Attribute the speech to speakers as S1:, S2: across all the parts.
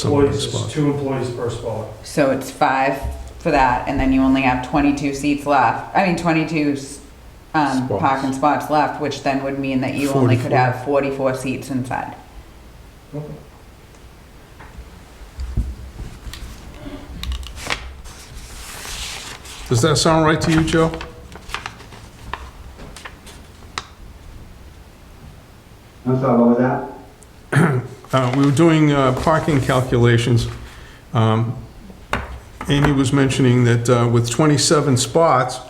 S1: someone
S2: Employees,
S1: spot.
S2: it's two employees per spot.
S3: So it's five for that, and then you only have 22 seats left, I mean, 22 s- um,
S1: Spots.
S3: parking spots left, which then would mean that you only could
S1: 44.
S3: have 44 seats inside.
S1: Does that sound right to you, Joe?
S4: I'm sorry, what was that?
S1: Uh, We were doing uh, parking calculations. Um, Amy was mentioning that uh, with 27 spots,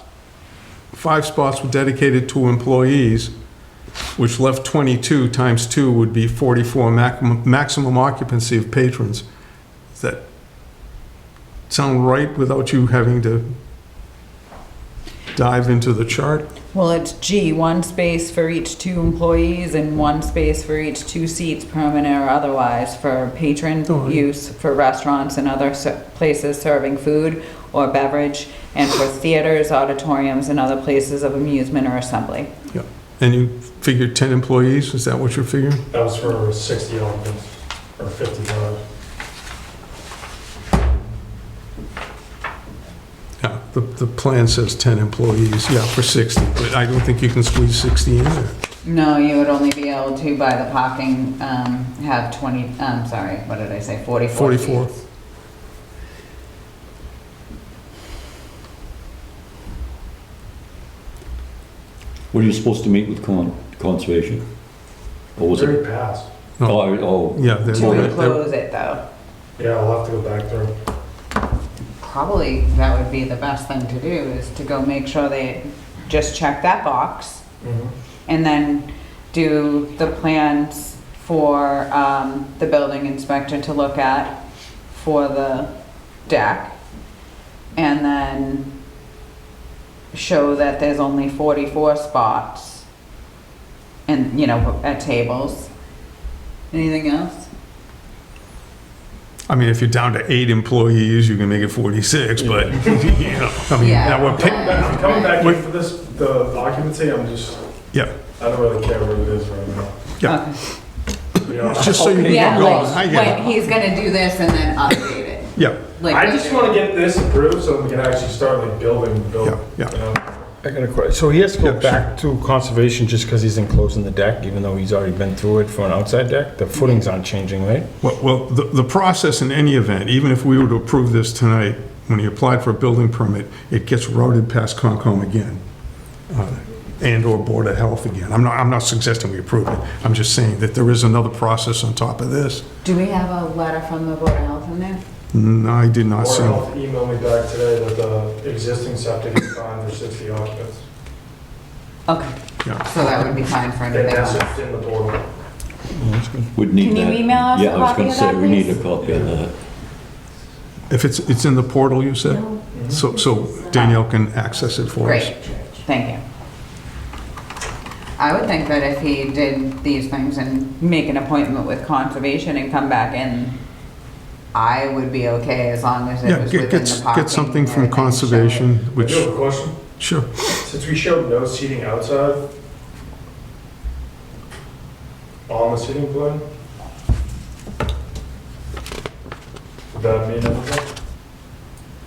S1: five spots were dedicated to employees, which left 22 times two would be 44 mac- maximum occupancy of patrons. Does that sound right without you having to dive into the chart?
S3: Well, it's G, one space for each two employees and one space for each two seats, permanent or otherwise, for patron
S1: Oh, yeah.
S3: use for restaurants and other ser- places serving food or beverage, and for theaters, auditoriums, and other places of amusement or assembly.
S1: And you figured 10 employees, is that what you're figuring?
S2: That was for 60 occupants, or 55.
S1: Yeah, the, the plan says 10 employees, yeah, for 60, but I don't think you can squeeze 60 in there.
S3: No, you would only be able to by the parking, um, have twenty, I'm sorry, what did I say, forty-four
S1: 44.
S3: seats.
S5: Were you supposed to meet with con- conservation? Or was it?
S2: Very fast.
S1: No.
S5: Oh, I- oh,
S1: Yeah, they're-
S3: To
S5: Well,
S1: they're- they're-
S3: enclose it though,
S2: Yeah, I'll have to go back through.
S3: probably that would be the best thing to do is to go make sure they just check that box
S5: Mm-hmm.
S3: and then do the plans for, um, the building inspector to look at for the deck. And then show that there's only forty-four spots. And, you know, at tables. Anything else?
S1: I mean, if you're down to eight employees, you can make it 46, but, you know, I mean,
S3: Yeah.
S1: now we're
S2: Coming
S1: picking,
S2: back- coming back in for this, the occupancy, I'm just,
S1: yeah,
S2: I don't really care what it is right now.
S1: yeah.
S3: Okay.
S2: You know,
S1: It's just so you
S3: Yeah,
S1: can go, I
S3: like,
S1: get
S3: when
S1: it,
S3: he's gonna do this and then update it.
S1: yeah,
S3: Like,
S2: I just
S3: later.
S2: want to get this approved so we can actually start like building, building.
S1: Yeah, yeah.
S2: you know?
S6: I got a question. So he has to
S1: Yeah,
S6: go
S1: sure.
S6: back to conservation just because he's enclosing the deck, even though he's already been through it for an outside deck? The footings aren't changing, right?
S1: Well, well, the, the process in any event, even if we were to approve this tonight, when he applied for a building permit, it gets routed past Concom again, uh, and/or Board of Health again. I'm not, I'm not suggesting we approve it. I'm just saying that there is another process on top of this.
S3: Do we have a letter from the Board of Health in there?
S1: No, I did not
S2: Board of
S1: see.
S2: Health emailed me back today that the existing septic is fine for 60 occupants.
S3: Okay,
S1: Yeah,
S3: so that would be fine for
S2: And
S3: anything
S2: that's
S3: else.
S2: just in the board.
S5: we'd need
S3: Can
S5: that.
S3: you email us a
S5: Yeah, I was
S3: copy
S5: gonna
S3: of
S5: say,
S3: that,
S5: we need
S3: please?
S5: a copy of that.
S1: If it's, it's in the portal, you said? So, so Danielle can access it for us.
S3: Great, thank you. I would think that if he did these things and make an appointment with conservation and come back in, I would be okay as long as it
S1: Yeah,
S3: was
S1: get,
S3: within the
S1: get,
S3: parking.
S1: get something from
S3: and everything, so-
S1: conservation,
S2: I do
S1: which,
S2: have a question.
S1: sure.
S2: Since we showed no seating outside on the seating plan, would that mean anything?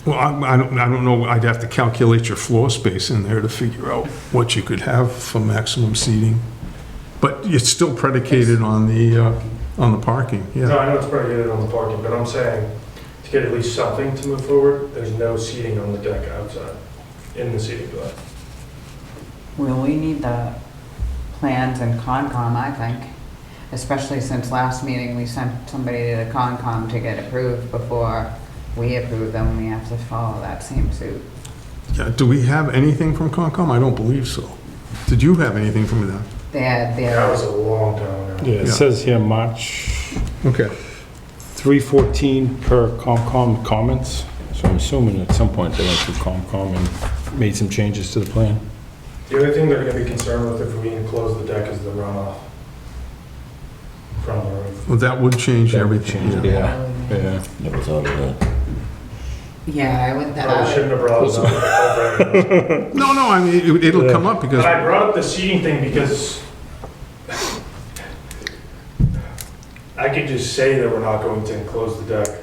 S1: Well, I, I don't, I don't know, I'd have to calculate your floor space in there to figure out what you could have for maximum seating. But it's still predicated on the, uh, on the parking,
S2: No,
S1: yeah.
S2: I know it's predicated on the parking, but I'm saying to get at least something to move forward, there's no seating on the deck outside in the seating plan.
S3: Well, we need the plans and Concom, I think, especially since last meeting, we sent somebody to the Concom to get approved before we approve them, we have to follow that same suit.
S1: Yeah, do we have anything from Concom? I don't believe so. Did you have anything from them?
S3: They had
S2: That
S3: their,
S2: was a long time ago.
S7: Yeah, it
S1: Yeah.
S7: says here March
S1: Okay.
S7: 314 per COMCOM comments. So I'm assuming at some point they went through COMCOM and made some changes to the plan.
S2: The only thing they're gonna be concerned with if we enclose the deck is the runoff from the roof.
S1: Well, that would change
S7: That would
S1: everything,
S7: change it,
S1: yeah.
S7: Yeah.
S5: Never thought of that.
S3: yeah, I would,
S2: Probably
S3: that,
S2: shouldn't have brought it up.
S1: No, no, I mean, it- it'll come up because
S2: But I brought up the seating thing because I I could just say that we're not going to enclose the deck.